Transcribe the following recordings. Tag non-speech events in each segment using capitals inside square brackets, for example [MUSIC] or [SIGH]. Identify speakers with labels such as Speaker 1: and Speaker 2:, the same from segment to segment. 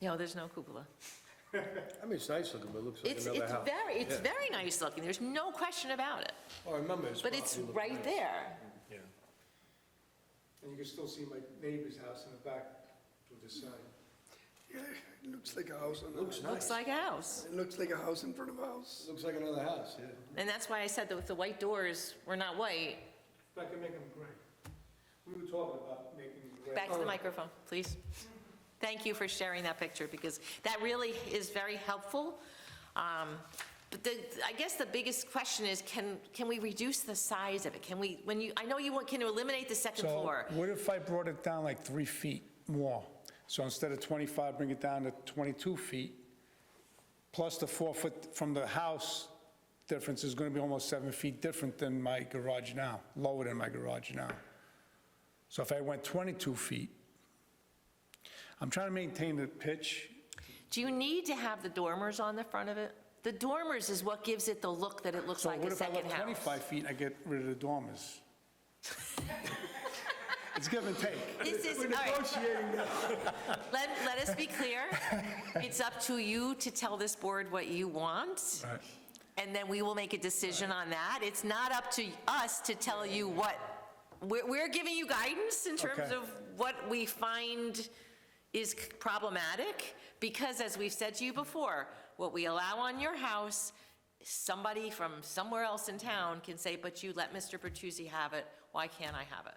Speaker 1: No, there's no cupola.
Speaker 2: I mean, it's nice looking, but it looks like
Speaker 1: It's,
Speaker 2: another
Speaker 1: it's
Speaker 2: house.
Speaker 1: very, it's
Speaker 2: Yeah.
Speaker 1: very nice looking, there's no question about it,
Speaker 2: Oh, I remember it's
Speaker 1: but it's
Speaker 2: property looked
Speaker 1: right
Speaker 2: nice.
Speaker 1: there.
Speaker 2: Yeah.
Speaker 3: And you can still see my neighbor's house in the back with the sign.
Speaker 4: Yeah, it looks like a house on the
Speaker 2: Looks
Speaker 4: house.
Speaker 1: Looks
Speaker 2: nice.
Speaker 1: like a house.
Speaker 4: It looks like a house in front of a house.
Speaker 2: Looks like another house, yeah.
Speaker 1: And that's why I said that with the white doors were not white.
Speaker 3: If I can make them gray. We were talking about making them gray.
Speaker 2: Oh.
Speaker 3: Oh.
Speaker 1: Back to the microphone, please. Thank you for sharing that picture, because that really is very helpful. Um, But the, I guess the biggest question is, can, can we reduce the size of it? Can we, when you, I know you want, can you eliminate the second floor?
Speaker 5: So what if I brought it down like three feet more? So instead of 25, bring it down to 22 feet, plus the four foot from the house difference is going to be almost seven feet different than my garage now, lower than my garage now. So if I went 22 feet, I'm trying to maintain the pitch.
Speaker 1: Do you need to have the dormers on the front of it? The dormers is what gives it the look that it looks like a
Speaker 5: So what
Speaker 1: second
Speaker 5: if I left
Speaker 1: house.
Speaker 5: 25 feet and I get rid of the
Speaker 1: [LAUGHS]
Speaker 5: dormers? It's give and take.
Speaker 1: This is, all right, let, let us
Speaker 5: [LAUGHS]
Speaker 1: be clear. It's up to you to tell this board what you want,
Speaker 5: Right.
Speaker 1: and then we will make a decision on that. It's not up to us to tell you what, we're, we're giving you guidance in terms
Speaker 5: Okay.
Speaker 1: of what we find is problematic, because as we've said to you before, what we allow on your house, somebody from somewhere else in town can say, but you let Mr. Bertuzzi have it, why can't I have it?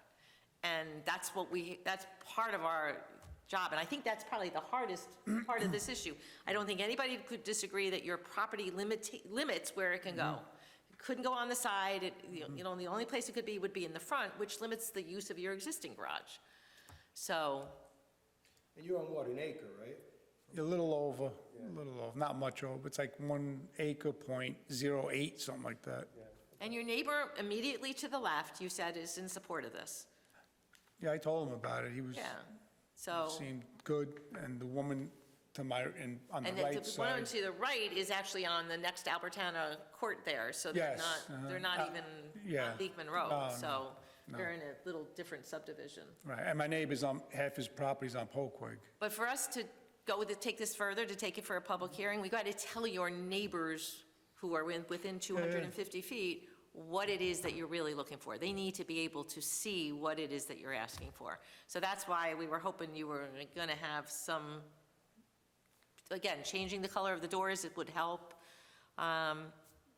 Speaker 1: And that's what we, that's part of our job, and I think that's probably the hardest part of this issue. I don't think anybody could disagree that your property limit, limits where it can go. Couldn't go on the side, it, you know, the only place it could be would be in the front, which limits the use of your existing garage. So,
Speaker 2: And you're on what, an acre, right?
Speaker 5: A little over, a little over, not much over, it's like one acre point zero eight, something like that.
Speaker 1: and your neighbor immediately to the left, you said, is in support of this.
Speaker 5: Yeah, I told him about it, he was,
Speaker 1: Yeah, Oh. so,
Speaker 5: seemed good, and the woman to my, and on
Speaker 1: and
Speaker 5: the
Speaker 1: then
Speaker 5: right
Speaker 1: the one
Speaker 5: side.
Speaker 1: to the right is actually on the next Albertana court there, so they're
Speaker 5: Yes,
Speaker 1: not, they're
Speaker 5: uh-huh.
Speaker 1: not
Speaker 5: Uh,
Speaker 1: even
Speaker 5: yeah.
Speaker 1: on Beekman
Speaker 5: No,
Speaker 1: Road,
Speaker 5: no,
Speaker 1: so they're in a little different subdivision.
Speaker 5: Right, and my neighbor's on, half his property's on Polkwig.
Speaker 1: But for us to go with it, take this further, to take it for a public
Speaker 5: Mm-hmm.
Speaker 1: hearing, we got to tell your neighbors who are in- within
Speaker 5: Mm-hmm.
Speaker 1: 250 feet what it is that you're really looking for. They need to be able to see what it is that you're asking for. So that's why we were hoping you were going to have some, again, changing the color of the doors, it would help. Um,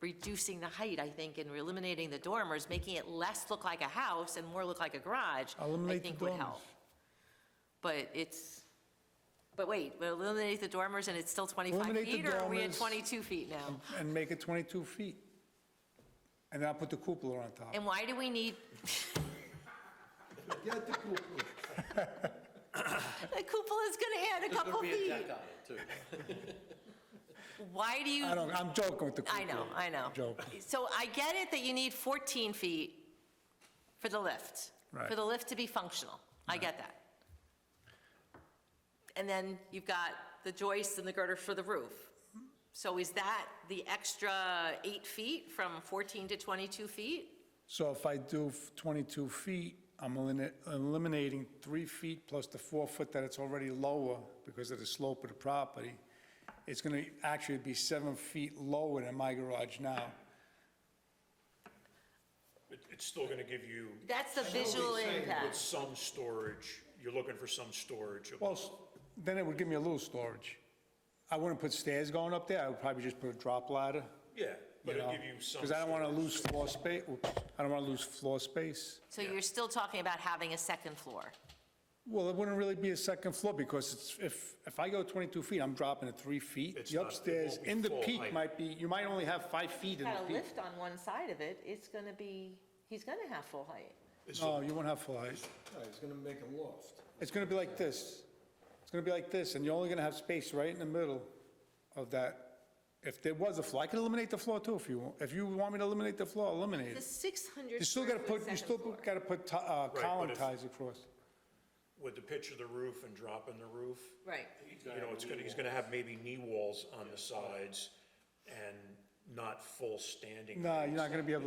Speaker 1: Reducing the height, I think, and eliminating the dormers, making it less look like a house and more look like a garage, I
Speaker 5: Eliminate the
Speaker 1: think would help.
Speaker 5: dormers.
Speaker 1: But it's, but wait, we eliminate the dormers and it's still 25
Speaker 5: Eliminate the
Speaker 1: feet, or are we at
Speaker 5: dormers.
Speaker 1: 22 feet now?
Speaker 5: And make it twenty-two feet. And then I'll put the cupola on top.
Speaker 1: And why do we need,
Speaker 2: Forget the cupola.
Speaker 1: the cupola is going to add a couple feet. Why do you,
Speaker 5: I don't, I'm joking with the cupola.
Speaker 1: I know, I know.
Speaker 5: Joking.
Speaker 1: So I get it that you need 14 feet for the lift. For
Speaker 5: Right.
Speaker 1: the lift to be functional. I get that. And then you've got the joists and the girder for the roof. So is that the extra eight feet from 14 to 22 feet?
Speaker 5: So if I do f- 22 feet, I'm elimina- eliminating three feet plus the four foot that it's already lower because of the slope of the property. It's going to actually be seven feet lower than my garage now.
Speaker 6: It- It's still going to give you
Speaker 1: That's the visual
Speaker 6: with
Speaker 1: impact.
Speaker 6: some storage, you're looking for some storage.
Speaker 5: Well, s- then it would give me a little storage. I wouldn't put stairs going up there, I would probably just put a drop ladder,
Speaker 6: Yeah,
Speaker 5: you
Speaker 6: but it'll give you some.
Speaker 5: Because I don't want to
Speaker 6: storage.
Speaker 5: lose floor space, I don't want to lose floor space.
Speaker 1: So you're still talking about having a second floor.
Speaker 5: Well, it wouldn't really be a second floor because it's, if, if I go 22 feet, I'm dropping it three feet.
Speaker 6: It's
Speaker 5: The
Speaker 6: not- it
Speaker 5: upstairs,
Speaker 6: won't be
Speaker 5: in the
Speaker 6: full
Speaker 5: peak
Speaker 6: height.
Speaker 5: might be, you might only have five feet in
Speaker 1: Got a
Speaker 5: the peak.
Speaker 1: lift on one side of it, it's going to be, he's going to have full height.
Speaker 5: No, you won't have full height.
Speaker 2: Right, it's gonna make a loft.
Speaker 5: It's gonna be like this. It's gonna be like this, and you're only gonna have space right in the middle of that. If there was a floor, I could eliminate the floor too if you want. If you want me to eliminate the floor, eliminate
Speaker 1: The
Speaker 5: it.
Speaker 1: 600.
Speaker 5: You still gotta
Speaker 1: square foot
Speaker 5: put, you
Speaker 1: second
Speaker 5: still
Speaker 1: floor.
Speaker 5: gotta put ti- uh,
Speaker 6: but
Speaker 5: column
Speaker 6: if-
Speaker 5: ties across.
Speaker 6: With the pitch of the roof and dropping the roof,
Speaker 1: Right.
Speaker 6: you know, it's going to, he's going to have maybe knee walls on the sides and not full standing.
Speaker 5: No,
Speaker 6: height.
Speaker 5: you're not gonna be able